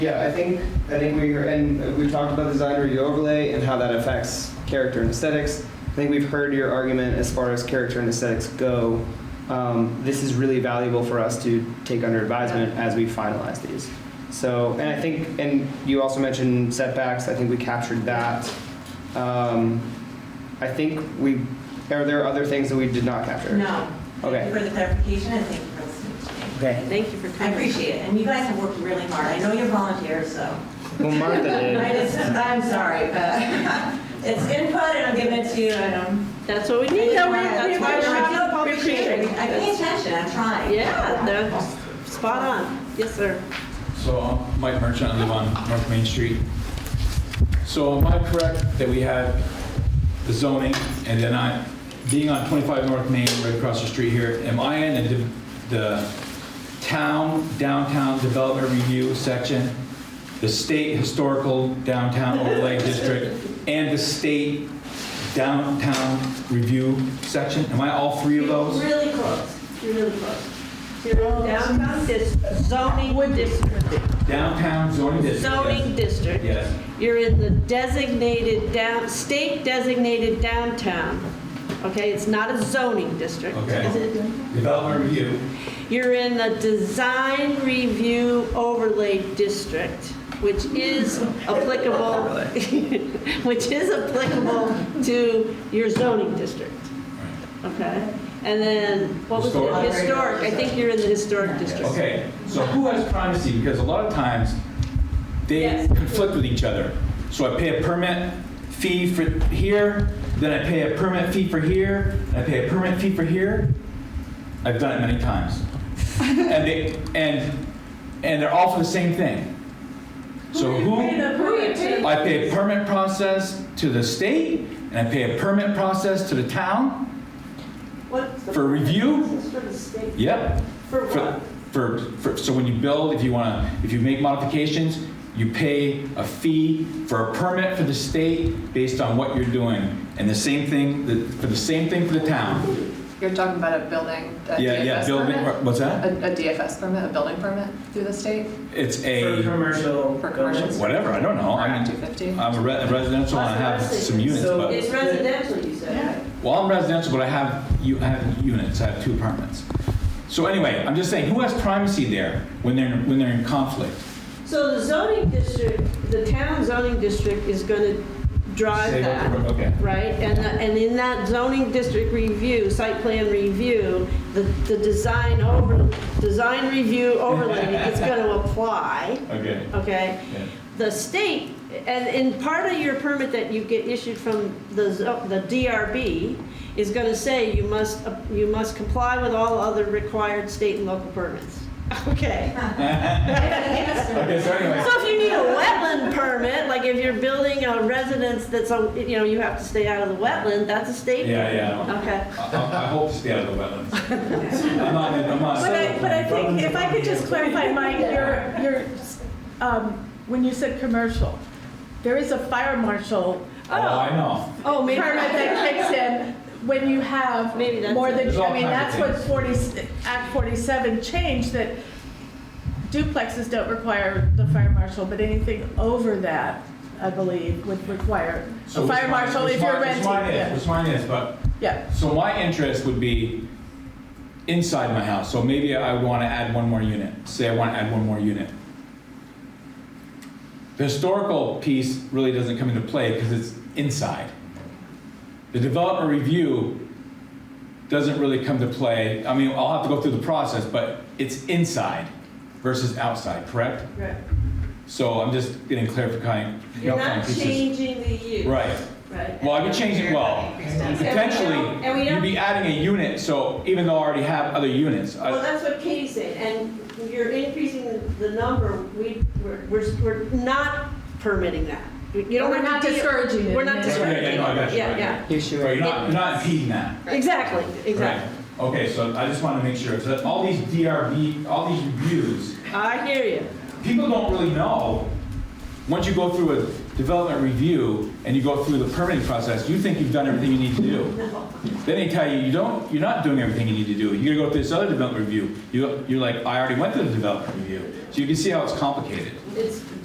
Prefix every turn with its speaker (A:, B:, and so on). A: Yeah, I think, I think we, heard- and we talked about the design review overlay and how that affects character and aesthetics. I think we've heard your argument as far as character and aesthetics go. Um, this is really valuable for us to take under advisement as we finalize these. So, and I think, and you also mentioned setbacks, I think we captured that. Um, I think we, are there other things that we did not capture?
B: No. Thank
A: Okay.
B: you for the clarification and thank you for listening to me.
A: Okay.
C: Thank you for
B: I
C: coming.
B: appreciate it, and you guys have worked really hard. I know you're volunteers, so.
A: Well, Martha
B: I
A: did.
B: just, I'm sorry, but it's input and I'm giving it to you and um, I'm.
C: That's what we need.
B: I I
C: That's why
B: feel
C: we're- we
B: public
C: appreciate
B: shaming. I pay
C: it.
B: attention, I'm trying.
C: Yeah, no, spot on. Yes, sir.
D: So I'm Mike Merchant, I live on North Main Street. So am I correct that we had the zoning and then I, being on 25 North Main, right across the street here, am I in the- the town downtown development review section, the state historical downtown overlay district, and the state downtown review section? Am I all three of those?
B: Really close, you're really close.
C: You're Downtown dis- zoning district,
D: Downtown zoning district? yes.
C: zoning district.
D: Yes.
C: You're in the designated down, state designated downtown. Okay, it's not a zoning district.
D: Okay. Development review?
C: You're in the design review overlay district, which is applicable, which is applicable to your zoning district. Okay? And then, what was it?
D: Historic.
C: Historic, I think you're in the historic district.
D: Okay, so who has primacy? Because a lot of times, they
C: Yes.
D: conflict with each other. So I pay a permit fee for here, then I pay a permit fee for here, and I pay a permit fee for here. I've done it many times. And they, and, and they're all for the same thing. So who, I pay a permit process to the state, and I pay a permit process to the town? For review? Yep.
C: For
D: For, for, for, so when you build, if you want to, if you make modifications, you pay a fee for a permit for the state based on what you're doing. And the same thing, the- for the same thing for the town.
E: You're talking about a building, a
D: Yeah, yeah,
E: DFS
D: building,
E: permit?
D: what's that?
E: A a DFS permit, a building permit through the state
D: It's
F: For
D: a,
F: commercial.
E: for commercials?
D: whatever, I don't know.
E: Or
D: Oh, I
E: Act
D: mean,
E: 250?
D: I'm a re- residential and I have some units,
F: So-
D: but,
C: It's residential, you said.
D: well, I'm residential, but I have, you, I have units, I have two apartments. So anyway, I'm just saying, who has primacy there when they're, when they're in conflict?
C: So the zoning district, the town zoning district is going to drive
D: Say what
C: that.
D: the- Okay.
C: right? And, uh, and in that zoning district review, site plan review, the, the design over, design review overlay is gonna apply,
D: Okay.
C: okay?
D: Yeah.
C: The state, and, and part of your permit that you get issued from the, zo- the DRB is gonna say you must, you must comply with all other required state and local permits, okay?
D: Okay, so anyway.
C: So if you need a wetland permit, like if you're building a residence that's, a- you know, you have to stay out of the wetland, that's a state.
D: Yeah, yeah.
C: Okay.
D: I- I I hope to stay out of the wetlands. I'm not, I'm not.
G: But I, but I think, if I could just clarify, Mike, your, your, um, when you said commercial, there is a fire marshal uh,
D: Oh, I know.
C: Oh, maybe.
G: permit that kicks in when you have
C: Maybe that's
G: more than,
D: There's all
G: I mean,
D: kinds
G: that's
D: of
G: what forty, Act forty-seven changed, that duplexes don't require the fire marshal, but anything over that, I believe, would require
D: So
G: a
D: which
G: fire
D: mine-
G: marshal
D: which
G: if you're
D: mine-
G: renting.
D: Which mine
G: yeah.
D: is, which mine is, but,
G: Yeah,
D: so my interest would be inside my house. So maybe I would want to add one more unit. Say I want to add one more unit. The historical piece really doesn't come into play because it's inside. The development review doesn't really come to play. I mean, I'll have to go through the process, but it's inside versus outside, correct?
C: Right.
D: So I'm just getting clarifying.
C: You're not
D: pieces.
C: changing the use.
D: Right.
C: Right.
D: Well, I could change it, well,
C: And we don't- and we
D: potentially,
C: don't-
D: you'd be adding a unit, so even though I already have other units, I-
C: Well, that's what Katie's saying, and you're increasing the number, we, we're, we're we're not permitting that. You don't
G: We're
C: have
G: not
C: to deal-
G: discouraging it.
C: We're not
D: Yeah, yeah,
C: discouraging.
D: no, I got you, I
C: Yeah,
D: got
C: yeah.
A: Issue.
D: Right, you're not, you're not impeding that.
C: Exactly,
D: Right.
C: exactly.
D: Okay, so I just want to make sure, so all these DRB, all these reviews,
C: I hear you.
D: people don't really know, once you go through a development review and you go through the permitting process, you think you've done everything you need to do. Then they tell you, you don't, you're not doing everything you need to do. You gotta go through this other development review. You, you're like, I already went through the development review. So you can see how it's complicated.
C: It's